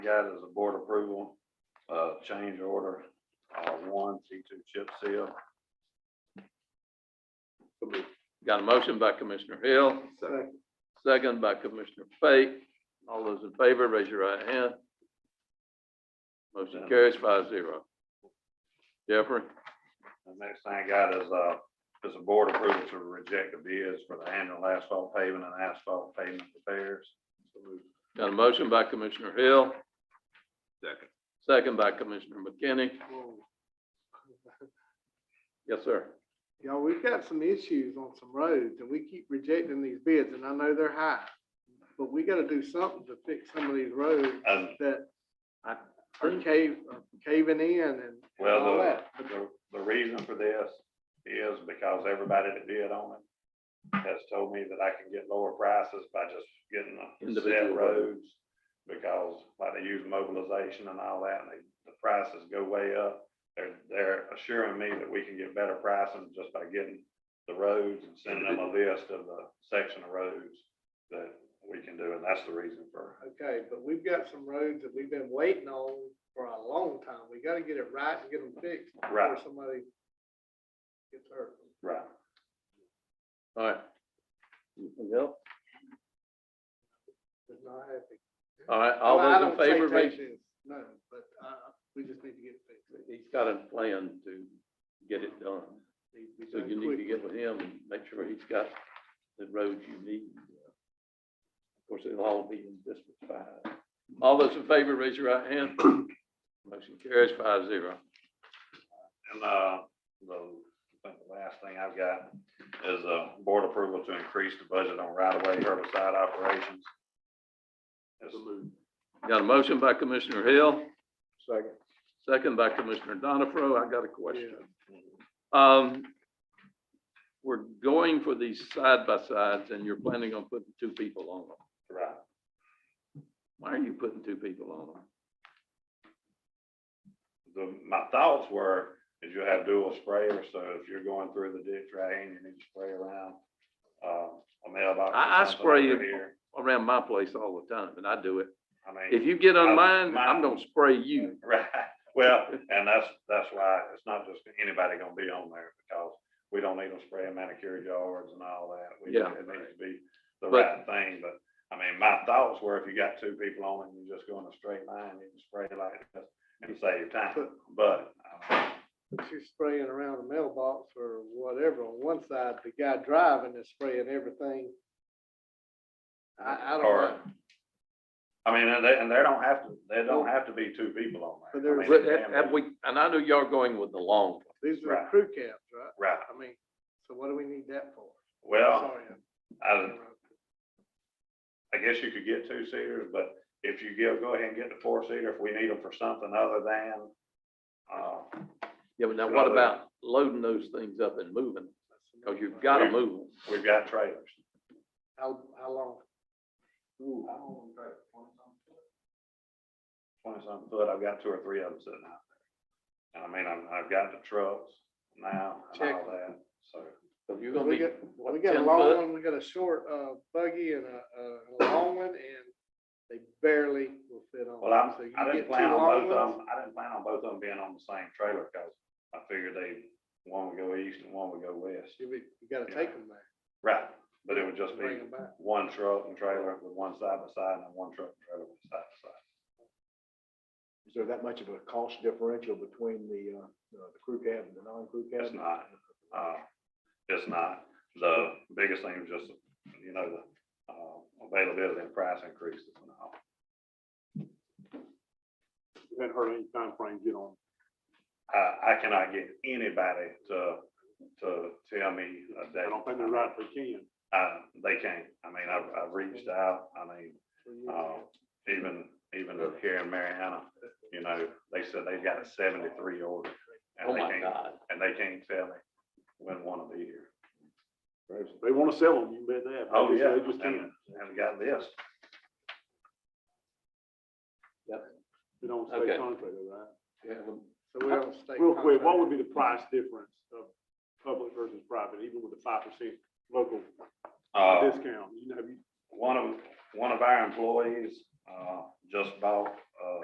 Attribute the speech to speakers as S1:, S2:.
S1: got is a board approval of change order, uh, one C two chip seal.
S2: Got a motion by Commissioner Hill, second by Commissioner Fake. All those in favor, raise your right hand. Motion carries five zero. Jeffrey,
S1: The next thing I got is, uh, is a board approval to reject the bids for the annual asphalt paving and asphalt pavement repairs.
S2: got a motion by Commissioner Hill.
S3: Second.
S2: Second by Commissioner McKinney. Yes, sir.
S4: Y'all, we've got some issues on some roads and we keep rejecting these bids and I know they're high. But we gotta do something to fix some of these roads
S1: And
S4: that are cave, are caving in and and
S1: Well,
S4: all
S1: the,
S4: that.
S1: the, the reason for this is because everybody that bid on it has told me that I can get lower prices by just getting the set
S2: Individual
S1: roads. Because like they use mobilization and all that, and they, the prices go way up. They're, they're assuring me that we can get better pricing just by getting the roads and sending them a list of the section of roads that we can do, and that's the reason for.
S4: Okay, but we've got some roads that we've been waiting on for a long time. We gotta get it right and get them fixed before
S1: Right.
S4: somebody gets hurt.
S1: Right.
S2: All right. Anything else?
S4: Is not happy.
S2: All right, all
S4: Well, I
S2: those in
S4: don't say
S2: favor, raise.
S4: take this, No, but, uh, we just need to get it fixed.
S2: He's got a plan to get it done.
S4: Needs to be
S2: So
S4: done
S2: you need to
S4: quickly.
S2: get with him and make sure he's got the roads you need. Of course, it'll all be in District Five. All those in favor, raise your right hand. Motion carries five zero.
S1: And, uh, the, I think the last thing I've got is, uh, board approval to increase the budget on right-of-way herbicide operations. It's
S2: Got a motion by Commissioner Hill,
S3: Second.
S2: second by Commissioner Donifro. I got a question.
S4: Yeah.
S2: Um, we're going for these side by sides and you're planning on putting two people on them.
S1: right,
S2: Why are you putting two people on them?
S1: the, my thoughts were, is you'll have dual sprayers, so if you're going through the ditch right and you need to spray around, uh, a mailbox. or
S2: I- I
S1: something
S2: spray
S1: over
S2: it.
S1: here,
S2: Around my place all the time and I do it.
S1: I mean.
S2: If you get on
S1: Uh,
S2: mine,
S1: mine-
S2: I'm gonna spray you.
S1: Right, well, and that's, that's why it's not just anybody gonna be on there, because we don't need them spraying manicure yards and all that. We-
S2: Yeah.
S1: It needs to be the
S2: But-
S1: right thing, but, I mean, my thoughts were if you got two people on it, and you just go in a straight line, you can spray like this and save time, but. uh, I
S4: But you're spraying around a mailbox or whatever on one side, the guy driving is spraying everything.
S1: mean,
S4: I, I don't
S1: or-
S4: know,
S1: I mean, and they, and they don't have to, they don't have to be two people on
S4: But
S1: there. I
S4: there's-
S1: mean,
S2: But
S1: it can
S2: have- have
S1: be-
S2: we, and I know y'all going with the long, one.
S4: these are
S1: Right.
S4: the crew cabs, right?
S1: Right,
S4: I mean, so what do we need that for?
S1: well,
S4: Sorry,
S1: I,
S4: I'm-
S1: I guess you could get two seaters, but if you give, go ahead and get the four seater, if we need them for something other than, uh,
S2: yeah, but now
S1: Well,
S2: what
S1: they-
S2: about loading those things up and moving?
S1: oh,
S2: Cause you've gotta move them.
S1: we've got trailers.
S4: How, how long?
S1: Twenty something foot, I've got two or three of them sitting out there. And I mean, I'm, I've got the trucks now and all
S4: Check.
S1: that, so.
S2: So you're gonna
S4: We
S2: be,
S4: got,
S2: what,
S4: we got
S2: 10
S4: a long
S2: foot?
S4: one, we got a short, uh, buggy and a, a, a long one, and they barely will fit on.
S1: Well, I'm,
S4: So you
S1: I
S4: get
S1: didn't
S4: two
S1: plan on
S4: long
S1: both of
S4: ones,
S1: them, I didn't plan on both of them being on the same trailer, cause I figured they, one would go east and one would go west.
S4: You, be- you gotta take them back.
S1: Right, but it would just be
S4: Bring them back.
S1: one truck and trailer with one side by side and then one truck and trailer with side by side.
S3: Is there that much of a cost differential between the, uh, the crew cab and the non-crew cab?
S1: It's not. Uh, it's not. The biggest thing is just, you know, the, uh, availability and price increases and all.
S5: haven't heard any timeframe get on.
S1: I, I cannot get anybody to, to tell me a date.
S5: I don't think they rightfully can.
S1: Uh, they can't. I mean, I've, I've reached out. I mean,
S4: for you.
S5: Um,
S1: uh, even, even here in Mariana, you know, they said they've got a seventy-three order. and
S2: oh
S1: they
S2: my
S1: can't-
S2: God.
S1: And they can't tell me when one will be here.
S5: They want to sell them, you bet that.
S1: Oh, yeah,
S5: They just
S1: and,
S5: can't.
S1: and got this.
S5: They don't
S2: Okay.
S5: stay contract, right?
S4: So we don't stay.
S5: Real quick, what
S4: contract.
S5: would be the price difference of public versus private, even with the five percent local
S1: Uh,
S5: discount? You know, have you-
S1: one of, one of our employees, uh, just bought